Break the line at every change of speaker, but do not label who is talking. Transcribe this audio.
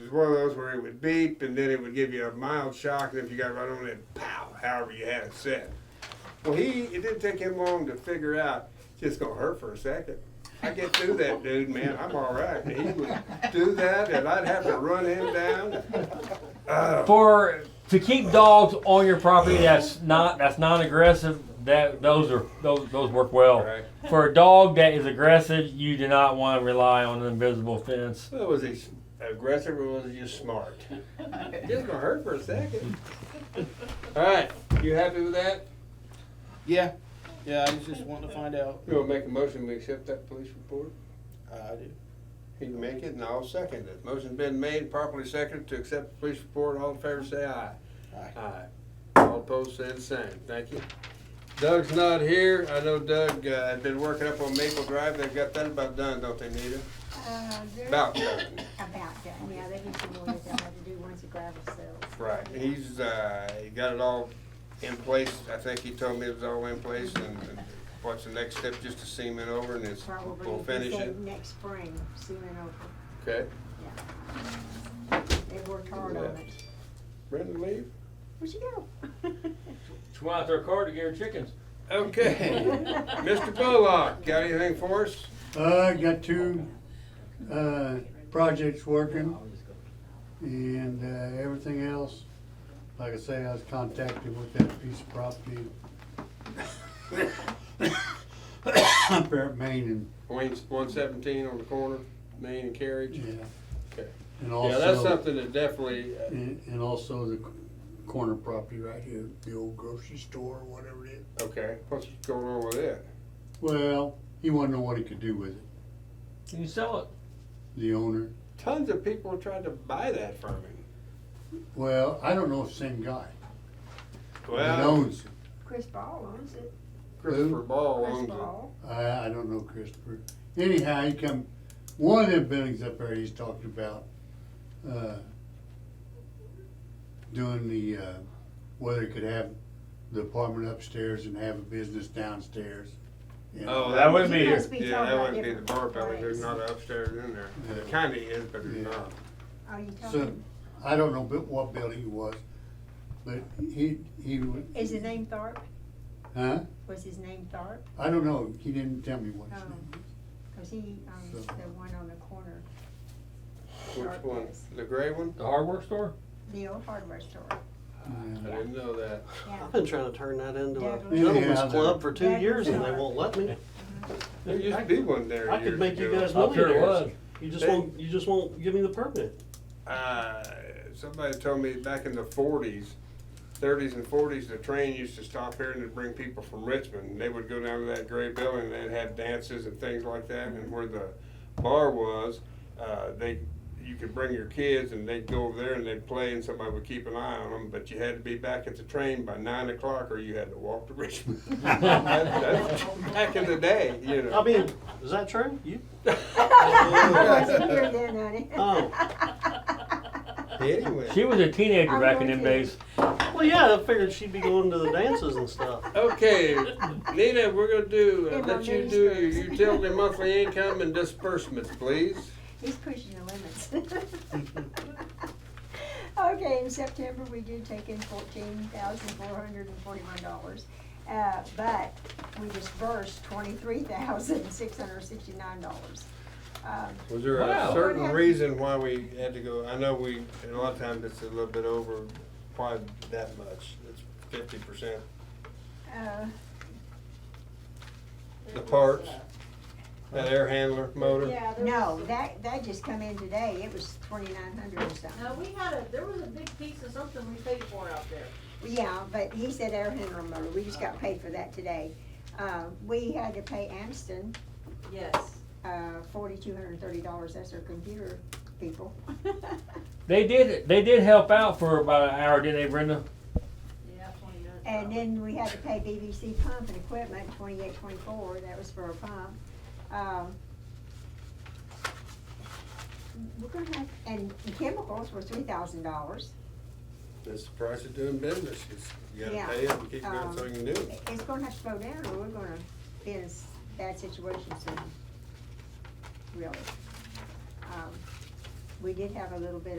was one of those where it would beep and then it would give you a mild shock, and if you got right on it, pow, however you had it set. Well, he, it didn't take him long to figure out, it's just gonna hurt for a second. I get through that dude, man, I'm all right. And he would do that, and I'd have to run him down. Oh,
For to keep dogs on your property, that's not that's non-aggressive. That those are those those work well.
Right.
For a dog that is aggressive, you do not want to rely on an invisible fence.
so was he aggressive or was he just smart? It's just gonna hurt for a second. All right, you happy with that?
Yeah, yeah, I was just wanting to find out. Uh,
You wanna make a motion, we accept that police report?
I do.
He can make it, and I'll second it. Motion's been made, properly seconded to accept the police report. All in favor, say aye.
Aye.
Aye. All opposed, say the same. Thank you. Doug's not here. I know Doug, uh, had been working up on Maple Drive. They've got that about done, don't they, Nita?
Uh, there-
About done.
About done, yeah, they get some more that they have to do once the gravel settles.
Right. He's, uh, he got it all in place. I think he told me it was all in place, and and what's the next step? Just to seam it over, and it's,
Probably,
we'll
he
finish it.
said next spring, soon and over,
Okay.
they worked hard on it.
Brendan, leave?
Where'd she go?
She went out their car to get her chickens.
Okay. Mr. Bullock, got anything for us?
Uh, I got two, uh, projects working and, uh, everything else. Like I say, I was contacted with that piece of property. Up there at Main
Wayne's one seventeen on the corner, Main and
and,
Carriage.
yeah.
Okay.
And
Yeah, that's
also,
something that definitely, uh,
and, and also the corner property right here, the old grocery store, whatever it is.
okay, what's going on with it?
Well, he wanted to know what he could do with it,
You can sell it.
the owner.
Tons of people are trying to buy that from him.
Well, I don't know if same guy. He owns it.
Chris Ball owns it.
Christopher Ball
Chris
owns it.
Ball.
I, I don't know Christopher. Anyhow, he come, one of them buildings up there he's talked about, uh, doing the, uh, whether he could have the apartment upstairs and have a business downstairs. you know.
Oh, that would
You
be,
must be
yeah,
talking
that
about
wouldn't be the bar
different
belly, there's
place.
not an upstairs in there.
Yeah.
It kinda is, but
Yeah.
it's not.
Are Oh, you
So,
talking,
I don't know bu- what building it was, but he, he. would-
is his name Tharp?
Huh?
Was his name Tharp?
I don't know. He didn't tell me what his
Oh.
name
Cause he owns
So-
the one on the corner,
Which one? The gray one?
The hardware store.
the old hardware store.
I
was.
didn't know that.
Yeah.
I've been trying to turn that into a
Douglas.
gentleman's
Yeah,
club for two
Douglas
years and they
Yard.
won't let me.
There used to be one there
I could
years
make you
ago.
guys
I'm sure it
millionaires.
was.
You just won't, you just won't give me the permit.
Uh, somebody told me back in the forties, thirties and forties, the train used to stop here and it'd bring people from Richmond. And they would go down to that gray building and they'd have dances and things like that. And where the bar was, uh, they, you could bring your kids and they'd go over there and they'd play and somebody would keep an eye on them. But you had to be back at the train by nine o'clock or you had to walk to Richmond. That- that's Back in the day, you know.
I mean, is that true? You,
I wasn't here then, honey.
Oh.
Anyway.
She was a teenager
I'm
back in them
going to.
days.
well, yeah, I figured she'd be going to the dances and stuff.
Okay, Nina, we're gonna do, uh,
Give
let
our
you do your
ministers.
utility monthly income and disbursements, please.
He's pushing the limits. Okay, in September, we did take in fourteen thousand four hundred and forty-one dollars. Uh, but we dispersed twenty-three thousand six hundred sixty-nine dollars. Um,
Was there a
Wow.
certain reason why we had to go, I know we, and a lot of times it's a little bit over, probably that much, it's fifty percent.
uh,
The parts, that air handler motor,
Yeah, there
no,
was a-
that, that just come in today, it was twenty-nine hundred or something.
No, we had a, there was a big piece of something we paid for out there.
Yeah, but he said air handler motor, we just got paid for that today. Uh, we had to pay Amston
Yes.
uh, forty-two hundred and thirty dollars, that's our computer people.
They did they did help out for about an hour, didn't they, Brenda?
Yeah, twenty-nine.
And then we had to pay BBC pump and equipment, twenty-eight, twenty-four, that was for our pump. Um, We're gonna have, and chemicals were three thousand dollars.
that's the price of doing business, it's, you
Yeah,
gotta pay it and keep going
um,
so you can do it.
It's gonna have to slow down or we're gonna be in a s- bad situation soon, really. Um, We did have a little bit